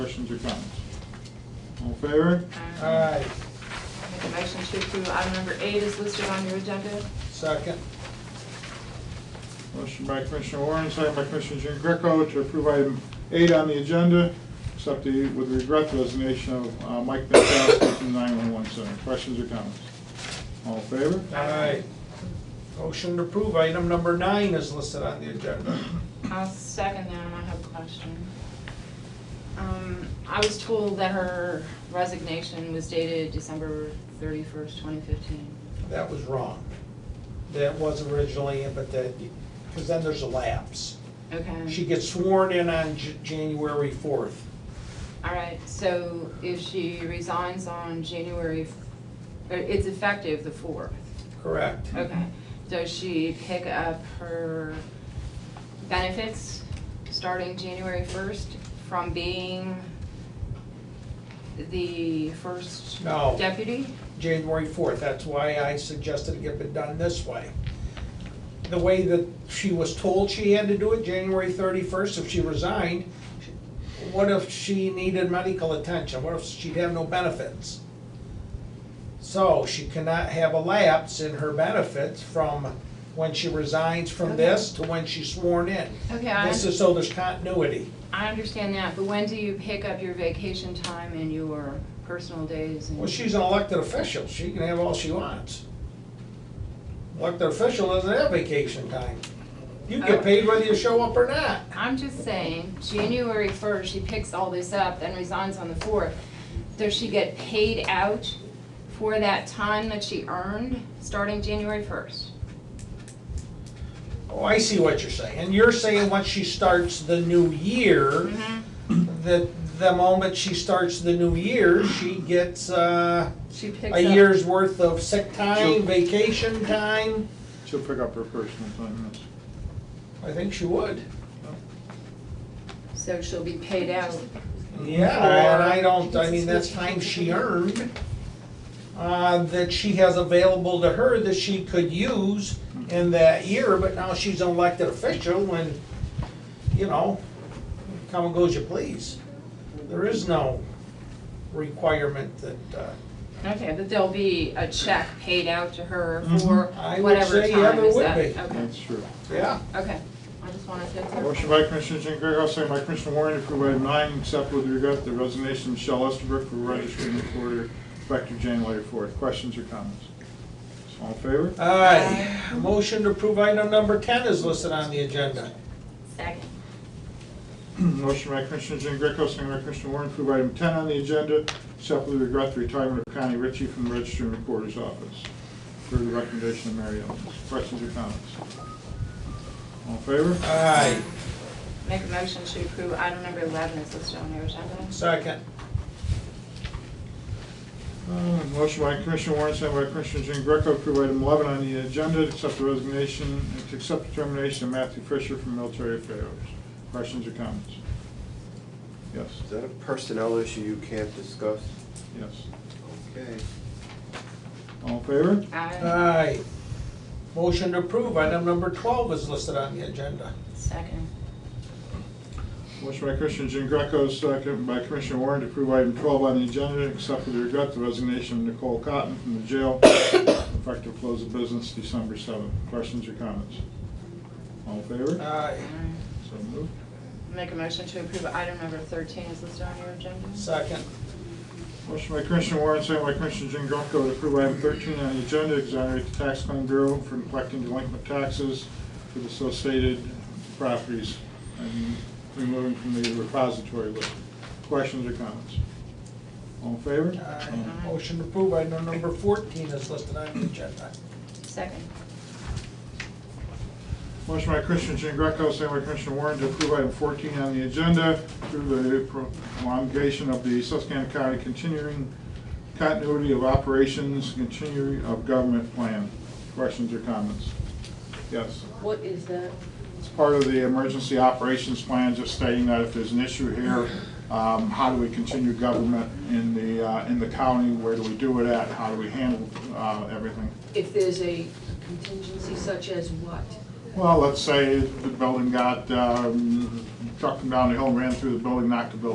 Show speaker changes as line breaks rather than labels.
questions or comments? All in favor?
Aye,
Make a motion to approve item number eight is listed on your agenda.
second.
Motion by Commissioner Warren, second by Commissioner Jean Greco to approve item eight on the agenda, accept the, with regret, the resignation of uh, Mike Pankowski from 911 Center. Questions or comments? All in favor?
Aye. Motion to approve item number nine is listed on the agenda.
I'll second that, and I have a question. Um, I was told that her resignation was dated December thirty-first, twenty fifteen.
That was wrong. That was originally, in, but that, because then there's a lapse.
Okay.
She gets sworn in on J- January fourth.
All right, so if she resigns on January, f- uh, it's effective the fourth.
Correct.
Okay. Does she pick up her benefits starting January first from being the first
No.
deputy?
January fourth, that's why I suggested it get it done this way. The way that she was told she had to do it, January thirty-first, if she resigned, what if she needed medical attention, what if she'd have no benefits? So she cannot have a lapse in her benefits from when she resigns from this to when she's sworn in.
Okay, I,
This is so there's continuity.
I understand that, but when do you pick up your vacation time and your personal days and?
Well, she's an elected official, she can have all she wants. Elected official doesn't have vacation time. You get paid whether you show up or not.
I'm just saying, January first, she picks all this up, then resigns on the fourth. Does she get paid out for that time that she earned, starting January first?
Oh, I see what you're saying. You're saying once she starts the new year, that the moment she starts the new year, she gets, uh,
She picks up.
a year's worth of sick
Sure.
time, vacation time.
She'll pick up her personal time, yes.
I think she would.
So she'll be paid out.
Yeah, and I don't, I mean, that's time she earned, uh, that she has available to her that she could use in that year, but now she's an elected official and, you know, come and go as you please. There is no requirement that, uh,
Okay, but there'll be a check paid out to her for
Mm-hmm. I would
whatever
say, yeah,
time
there
is
would
that?
be.
Okay,
That's true.
yeah,
okay. I just wanted to.
Motion by Commissioner Jean Greco, second by Commissioner Warren to approve item nine, accept with regret the resignation of Michelle Estabrook for registering recorder effective January fourth. Questions or comments? All in favor?
aye. Motion to approve item number ten is listed on the agenda.
Second.
Motion by Commissioner Jean Greco, second by Commissioner Warren, to approve item ten on the agenda, accept with regret the retirement of Connie Ritchie from the Registrar and Recorder's Office. Per the recommendation of Mary Ellen. Questions or comments? All in favor?
Aye,
Make a motion to approve item number eleven is listed on your agenda.
second.
Uh, Motion by Commissioner Warren, second by Commissioner Jean Greco, to approve item eleven on the agenda, accept the resignation, to accept the termination of Matthew Fisher from Military Affairs. Questions or comments? Yes,
Is that a personnel issue you can't discuss?
yes.
Okay.
All in favor?
Aye.
Aye. Motion to approve item number twelve is listed on the agenda.
Second.
Motion by Commissioner Jean Greco, second by Commissioner Warren to approve item 12 on the agenda, accept with regret the resignation of Nicole Cotton from the jail, effective close of business December 7th. Questions or comments? All in favor?
Aye.
Aye.
So moved.
Make a motion to approve item number thirteen is listed on your agenda.
Second.
Motion by Commissioner Warren, second by Commissioner Jean Greco to approve item 13 on the agenda, exonerate the tax claim bureau for collecting delinquent taxes for the associated properties and removing from the repository list. Questions or comments? All in favor?
Aye. Motion to approve item number fourteen is listed on the agenda.
Second.
Motion by Commissioner Jean Greco, second by Commissioner Warren to approve item 14 on the agenda through the prolongation of the Susquehanna County continuing continuity of operations, continuing of government plan. Questions or comments? Yes.
What is that?
It's part of the emergency operations plan, just stating that if there's an issue here, um, how do we continue government in the, uh, in the county? Where do we do it at? How do we handle uh, everything?
If there's a contingency such as what?
Well, let's say the building got, um, trucked them down the hill, and ran through the building, knocked the building